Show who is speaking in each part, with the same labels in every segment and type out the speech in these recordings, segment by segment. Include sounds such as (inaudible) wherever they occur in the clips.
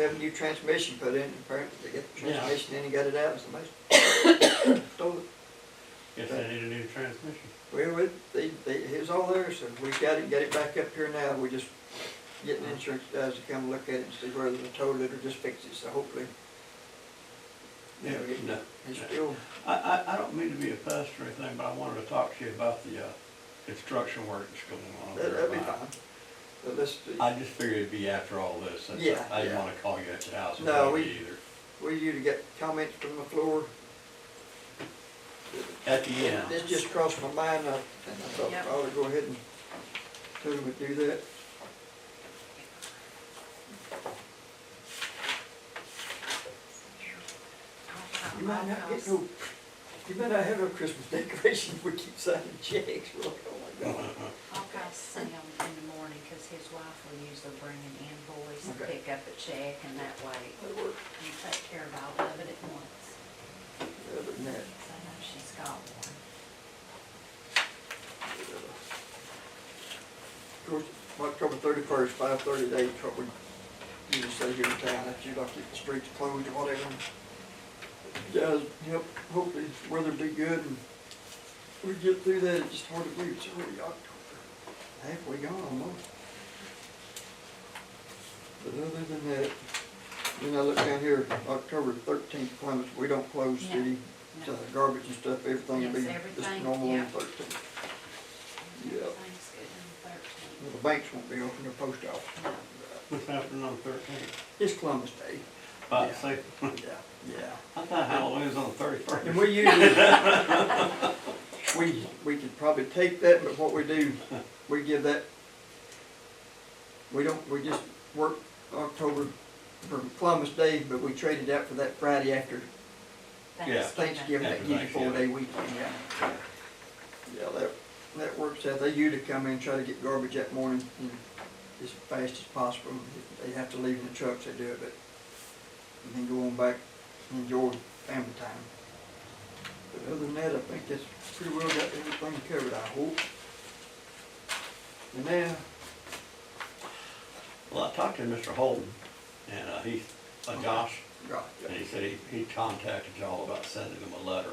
Speaker 1: Have a new transmission put in, apparently, they get the
Speaker 2: Yeah.
Speaker 1: transmission in and got it out, and somebody (coughs) stole it.
Speaker 2: Guess they need a new transmission.
Speaker 1: Well, it, they, they, it was all there, so we got it, got it back up here now, we just getting insurance guys to come look at it and see whether they total it or just fix it, so hopefully. Yeah,
Speaker 2: No.
Speaker 1: it's still,
Speaker 2: I, I, I don't mean to be a pest or anything, but I wanted to talk to you about the, uh, construction work that's going on
Speaker 1: that-
Speaker 2: there.
Speaker 1: that'd be
Speaker 2: at mine.
Speaker 1: fine. But let's, see.
Speaker 2: I just figured it'd be after all this, since
Speaker 1: Yeah,
Speaker 2: I- I didn't
Speaker 1: yeah.
Speaker 2: wanna call you at your house and
Speaker 1: No,
Speaker 2: bug
Speaker 1: we-
Speaker 2: you either.
Speaker 1: we you to get comments from the floor.
Speaker 2: At the end,
Speaker 1: This just crossed my mind, I, and I thought
Speaker 3: Yep.
Speaker 1: I ought to go ahead and, tell them to do that. You might not get no, you might not have no Christmas (laughs) decoration, we keep signing checks, we're like, oh my God.
Speaker 2: (laughs)
Speaker 3: I'll call Sam in the morning, cause his wife will usually bring an invoice and
Speaker 1: Okay.
Speaker 3: pick up a check, and that way
Speaker 1: That'd work.
Speaker 3: you take care of all of it at once.
Speaker 1: Other than that,
Speaker 3: 'Cause I know she's got one.
Speaker 1: uh, Of course, October thirty-first, five thirty to eight, what we usually say here in town, that you like if the streets closed or whatever. Guys, help, hopefully the weather be good and we get through that, it's just hard to believe, it's already October, halfway gone almost. But other than that, then I look down here, October thirteenth, Clemens, we don't close
Speaker 3: No,
Speaker 1: city,
Speaker 3: no.
Speaker 1: so the garbage and stuff, everything will be
Speaker 3: Yes,
Speaker 1: just
Speaker 3: everything,
Speaker 1: normal on
Speaker 3: yeah.
Speaker 1: thirteenth. Yeah.
Speaker 3: Everything's good on the thirteenth.
Speaker 1: Well, The banks won't be open, the post office.
Speaker 3: No.
Speaker 2: what's happening on the thirteenth?
Speaker 1: It's Columbus Day.
Speaker 2: About
Speaker 1: Yeah.
Speaker 2: to say,
Speaker 1: Yeah, yeah.
Speaker 2: (laughs) I thought Halloween's on the thirty-first.
Speaker 1: And we usually, we, we could probably take that, but what we do, we give that, we don't, we just work October from Columbus Day, but we trade it out for that Friday after
Speaker 2: Yeah.
Speaker 1: Thanksgiving, that gives you four day weekend, yeah. Yeah, that, that works out, they usually come in, try to get garbage that morning, you know, as fast as possible, if they have to leave in the trucks, they do it, but and then go on back, and enjoy family time. But other than that, I think that's pretty well got everything covered, I hope. And now,
Speaker 2: (laughs) Well, I talked to Mr. Holden, and, uh, he's, uh, Josh,
Speaker 1: right,
Speaker 2: and he said he, he contacted y'all about sending him a letter.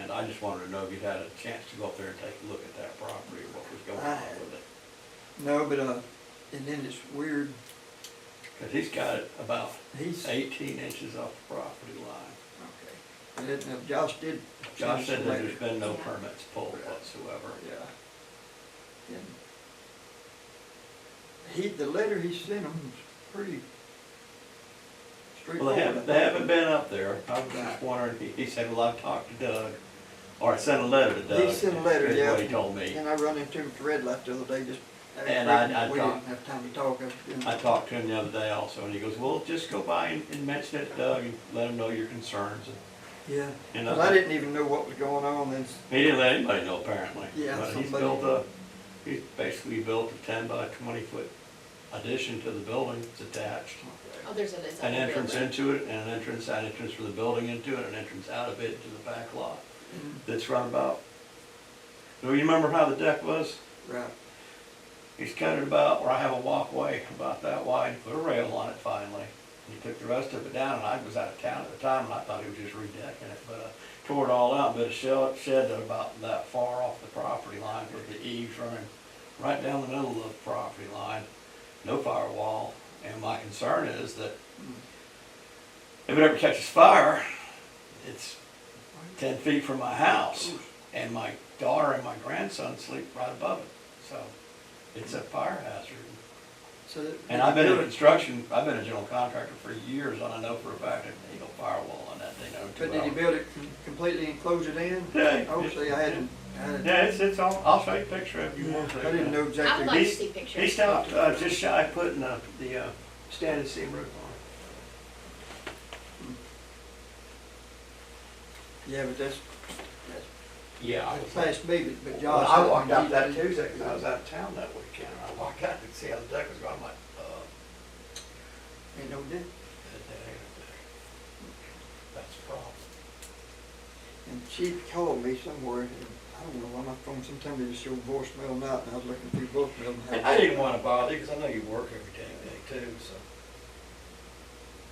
Speaker 2: And I just wanted to know if you'd had a chance to go up there and take a look at that property, what was going on
Speaker 1: I-
Speaker 2: with it.
Speaker 1: no, but, uh, and then it's weird,
Speaker 2: Cause he's got it about
Speaker 1: he's, okay,
Speaker 2: eighteen inches off the property line.
Speaker 1: and then uh, Josh did.
Speaker 2: Josh said that
Speaker 1: later.
Speaker 2: there's been no
Speaker 3: Yeah.
Speaker 2: permits pulled whatsoever.
Speaker 1: Yeah. And he, the letter he sent him was pretty
Speaker 2: Well,
Speaker 1: straightforward.
Speaker 2: they haven't, they haven't been up there. I was
Speaker 1: Right.
Speaker 2: just wondering, he, he said, well, I've talked to Doug, or I sent a letter to Doug.
Speaker 1: He sent a letter,
Speaker 2: is
Speaker 1: yeah.
Speaker 2: what he told me.
Speaker 1: And I run into him at the red light the other day, just.
Speaker 2: And I- I
Speaker 1: We
Speaker 2: talked-
Speaker 1: didn't have time to talk. I was-
Speaker 2: I talked to him the other day also, and he goes, well, just go by and, and mention it to Doug and let him know your concerns.
Speaker 1: Yeah,
Speaker 2: And
Speaker 1: 'Cause I didn't even know what was going on, then, s-
Speaker 2: He didn't let anybody know apparently.
Speaker 1: Yeah,
Speaker 2: But he's
Speaker 1: somebody-
Speaker 2: built a, he basically built a ten by twenty foot addition to the building, it's attached.
Speaker 4: Oh, there's a, it's a
Speaker 2: An entrance
Speaker 4: building.
Speaker 2: into it, and an entrance, an entrance for the building into it, an entrance out of it to the back lot.
Speaker 1: Mm,
Speaker 2: That's right about, do you remember how the deck was?
Speaker 1: right,
Speaker 2: He's cut it about, where I have a walkway about that wide, put a rail on it finally. And He took the rest of it down, and I was out of town at the time, and I thought he was just redecking it, but uh, tore it all out, but a shed, shed that about that far off the property line with the eaves running right down the middle of the property line, no firewall. And my concern is that if it ever catches fire, it's ten feet from my house, and my daughter and my grandson sleep right above it, so it's a fire hazard.
Speaker 1: so that.
Speaker 2: And I've been in construction, I've been a general contractor for years, and I know for a fact that they go firewall on that, they know too
Speaker 1: But did he
Speaker 2: well.
Speaker 1: build it com- completely and close it in?
Speaker 2: Yeah.
Speaker 1: Obviously, I hadn't, I hadn't,
Speaker 2: Yeah, it's, it's all, I'll show you a picture if you want to.
Speaker 1: I didn't know
Speaker 4: I
Speaker 1: exactly.
Speaker 4: would like to
Speaker 2: He's-
Speaker 4: see pictures.
Speaker 2: He stopped, uh, just shy of putting the, the, uh, standing seam roof
Speaker 1: Yeah, but that's, that's
Speaker 2: on. Yeah.
Speaker 1: past me, but- but
Speaker 2: Well,
Speaker 1: Josh.
Speaker 2: I walked out
Speaker 1: he-
Speaker 2: that Tuesday, cause I was out of town that weekend, and I walked out and see how the deck was going, I'm like, uh,
Speaker 1: Ain't no difference.
Speaker 2: That's a problem.
Speaker 1: And she called me somewhere, and I don't know why my phone, sometimes it just show voicemail now, and I was looking through voicemail. and had-
Speaker 2: And I didn't wanna bother you, cause I know you work every day, day too, so.